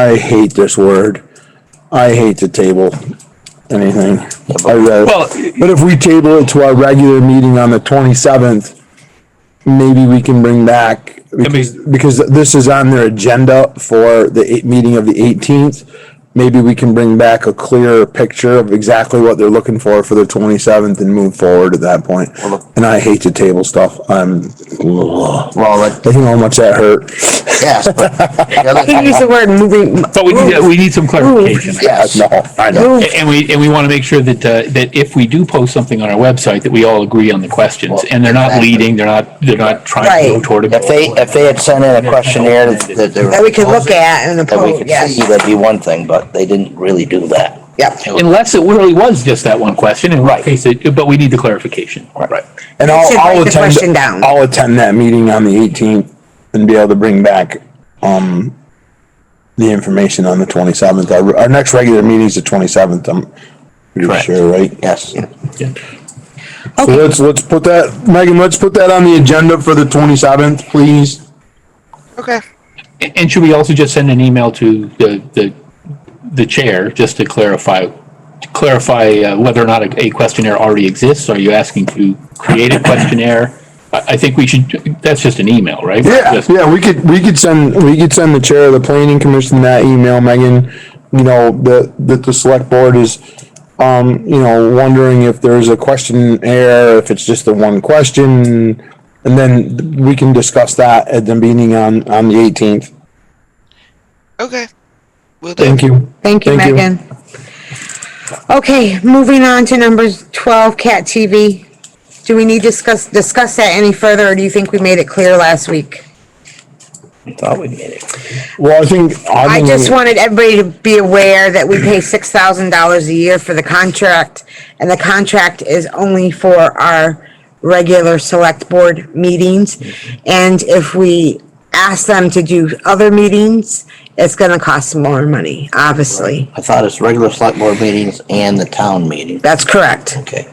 I hate this word. I hate to table anything. I really- Well, But if we table it to our regular meeting on the twenty-seventh, maybe we can bring back, because, because this is on their agenda for the eight, meeting of the eighteenth. Maybe we can bring back a clearer picture of exactly what they're looking for for the twenty-seventh and move forward at that point. Well, And I hate to table stuff. I'm, ugh. well, like, I think how much that hurt. yes, but the other He thing- used the word moving. But we need, we need some clarification. yes, No, I know. Move, And we, and we want to make sure that, uh, that if we do post something on our website, that we all agree on the questions and they're not leading, they're not, they're not trying to go Right. toward a if they, goal. if they had sent in a questionnaire that, that they were. That we could look at and That we approve, could yes, see, that'd be one thing, but they didn't really do that. yep. Unless it really was just that one question, in which case, it- but we need the clarification. Right. And I'll, should I'll write the question attend, down. I'll attend that meeting on the eighteenth and be able to bring back, um, the information on the twenty-seventh. Our, our next regular meeting's the twenty-seventh, I'm pretty Correct. sure, right? Yes, So let's, let's put that, Megan, let's put that on the agenda for the twenty-seventh, please. Okay. A- And should we also just send an email to the, the, the chair, just to clarify, to clarify uh, whether or not a- a questionnaire already exists? Are you asking to create a questionnaire? I, I think we should, that's just an email, right? Yeah, Just- yeah, we could, we could send, we could send the chair of the planning commission that email, Megan. You know, that, that the select board is, um, you know, wondering if there's a questionnaire, if it's just the one question. And then we can discuss that at the meeting on, on the eighteenth. Okay. Will do. Thank you. Thank you, Thank you. Megan. Okay, moving on to number twelve, Cat TV. Do we need to discuss, discuss that any further, or do you think we made it clear last week? thought we made it. Well, I think. I just wanted everybody to be aware that we pay six thousand dollars a year for the contract, and the contract is only for our regular select board meetings. And if we ask them to do other meetings, it's gonna cost more money, obviously. I thought it's regular select board meetings and the town meeting. That's correct. Okay.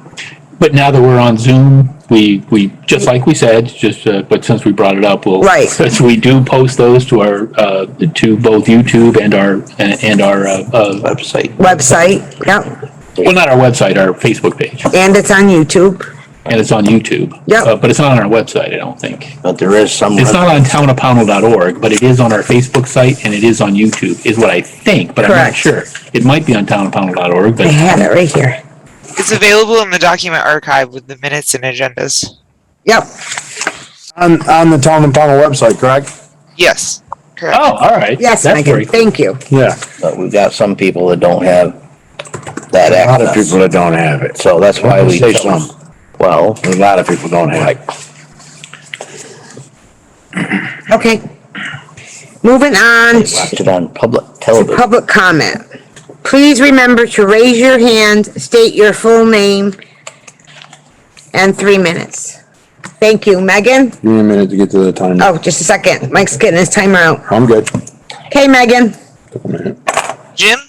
But now that we're on Zoom, we, we, just like we said, just, uh, but since we brought it up, we'll. Right. Since we do post those to our, uh, to both YouTube and our, and our, uh, uh, Website. Website, yep, well, not our website, our Facebook page, and it's on YouTube. and it's on YouTube. Yeah. Uh, But it's not on our website, I don't think. But there is some. It's not on townopownell.org, but it is on our Facebook site and it is on YouTube, is what I think, but I'm not Correct. sure. It might be on townopownell.org, I but have it right here. It's available in the document archive with the minutes and agendas. Yep, On, on the town and panel website, correct? Yes. Correct. oh, all right. yes, That's very Megan, cool. thank you. Yeah. But we've got some people that don't have that A lot of people access. that don't have it. So that's why we. Say some. Well, A lot of people don't have like, it. Okay. Moving on to watch it on public to television. public comment. Please remember to raise your hand, state your full name, and three minutes. Thank you. Megan? Give me a minute to get to the time. Oh, just a second. Mike's getting his timer out. I'm good. Okay, Megan? Took a minute. Jim?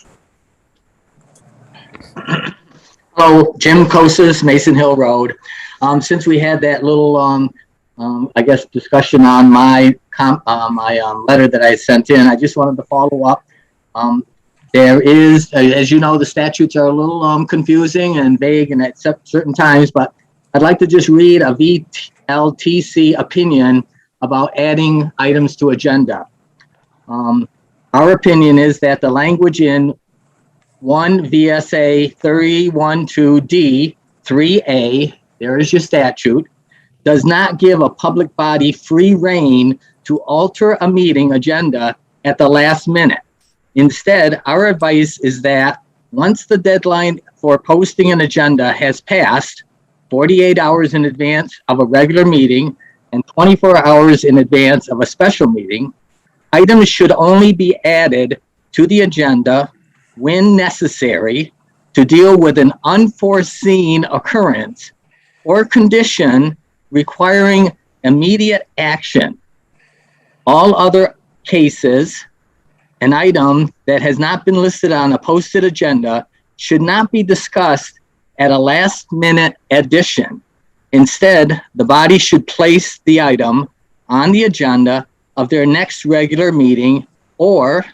Hello, Jim Kosis, Mason Hill Road. Um, since we had that little, um, um, I guess, discussion on my com, uh, my, um, letter that I sent in, I just wanted to follow up. Um, there is, as you know, the statutes are a little, um, confusing and vague and at cer- certain times, but I'd like to just read a VLTC opinion about adding items to agenda. Um, our opinion is that the language in one VSA 312D, 3A, there is your statute, does not give a public body free rein to alter a meeting agenda at the last minute. Instead, our advice is that once the deadline for posting an agenda has passed, 48 hours in advance of a regular meeting and 24 hours in advance of a special meeting, items should only be added to the agenda when necessary, to deal with an unforeseen occurrence or condition requiring immediate action. All other cases, an item that has not been listed on a posted agenda should not be discussed at a last minute addition. Instead, the body should place the item on the agenda of their next regular meeting or